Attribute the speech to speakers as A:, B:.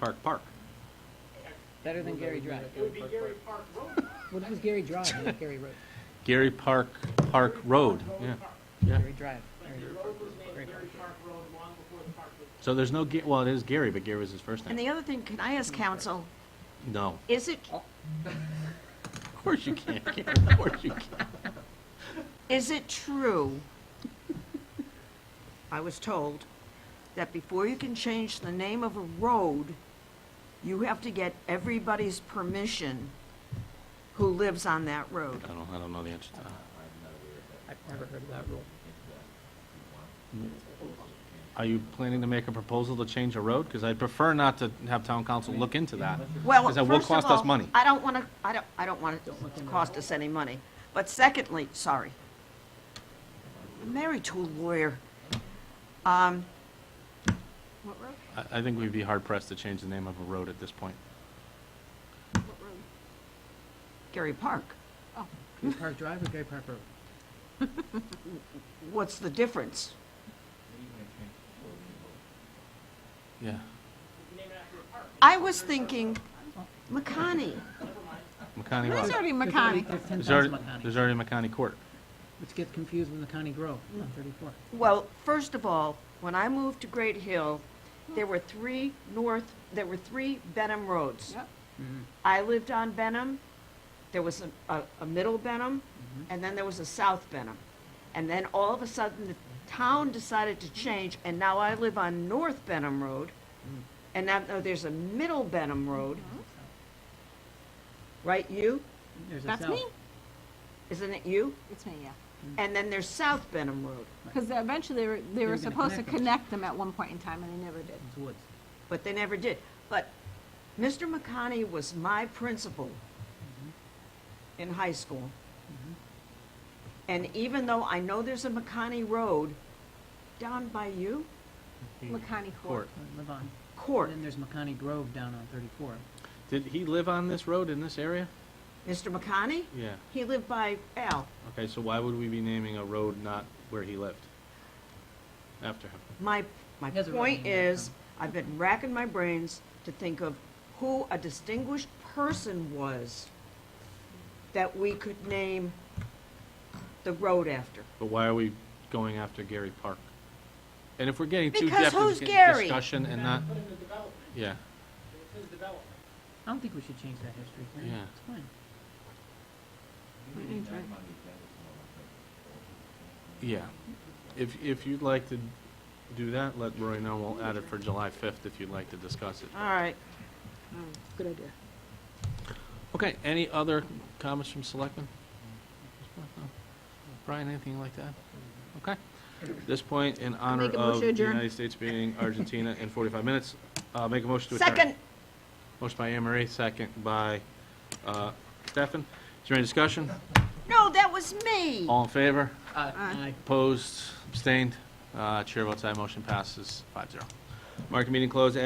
A: Park Park.
B: Better than Gary Drive.
C: It would be Gary Park Road.
B: What if it was Gary Drive, not Gary Road?
A: Gary Park, Park Road, yeah. Yeah.
B: Gary Drive.
C: But the road was named Gary Park Road long before the park was.
A: So there's no, Ga- well, it is Gary, but Gary was his first
D: And
A: name.
D: the other thing, can I ask council,
A: No,
D: is it,
A: of course you can't, Gary, of course you can't.
D: is it true? I was told that before you can change the name of a road, you have to get everybody's permission who lives on that road.
A: I don't, I don't know the answer to that.
B: I've never heard of that rule.
A: Are you planning to make a proposal to change a road? Because I prefer not to have town council look into that.
D: Well,
A: Because that
D: first
A: will
D: of
A: cost us
D: all,
A: money.
D: I don't want to, I don't, I don't want it to cost us any money. But secondly, sorry, I'm married to a lawyer. Um, What road?
A: I, I think we'd be hard pressed to change the name of a road at this point.
D: Gary Park.
B: Gary Park Drive or Gary Park Road?
D: What's the difference?
A: Yeah.
D: I was thinking McConney.
A: McConney
D: There's
A: Road.
D: already
B: There's
D: McConney.
B: ten
A: There's already,
B: thousand Makani,
A: there's already McConney Court.
B: which gets confused with Makani Grove on thirty-four.
D: Well, first of all, when I moved to Great Hill, there were three north, there were three Benham roads. I lived on Benham, there was a, a, a middle Benham, and then there was a south Benham. And then all of a sudden, the town decided to change, and now I live on North Benham Road, and now, now there's a middle Benham Road. Right, you?
B: There's a
E: That's
B: south.
E: me.
D: Isn't it you?
E: It's me, yeah.
D: And then there's South Benham Road,
E: Because eventually, they were, they
B: were
E: were
B: gonna
E: supposed to
B: connect them.
E: connect them at one point in time, and they never did.
B: It's woods.
D: but they never did. But Mr. McConney was my principal in high school. And even though I know there's a McConney Road down by you,
E: McConney
A: Court.
E: Court.
B: I Live on.
D: Court,
B: And then there's Makani Grove down on thirty-four.
A: Did he live on this road in this area?
D: Mr. McConney,
A: Yeah.
D: he lived by Al,
A: Okay, so why would we be naming a road not where he lived? After him?
D: My, my
B: He has a right
D: point
B: hand there,
D: is, I've been racking my brains to think of who a distinguished person was that we could name the road after.
A: But why are we going after Gary Park? And if we're getting too
D: Because
A: depth
D: who's
A: into
D: Gary?
A: discussion and not,
C: Put in the development,
A: yeah,
C: it's his development.
B: I don't think we should change that history. Karen.
A: Yeah.
B: It's fine.
A: yeah. If, if you'd like to do that, let Roy know. We'll add it for July 5th if you'd like to discuss it.
D: All right,
E: Good idea.
A: Okay, any other comments from selectmen? Brian, anything like that? Okay. At this point, in honor
E: make a
A: of
E: motion
A: the
E: adjourn.
A: United States beating Argentina in 45 minutes, uh, make a motion to adjourn.
D: second,
A: Motion by Anne Marie, second by uh, Stefan. Is there any discussion?
D: no, that was me.
A: All in favor?
B: Uh,
E: Aye.
A: Opposed, abstained, Uh, chair votes aye, motion passes 5-0. Market meeting closed at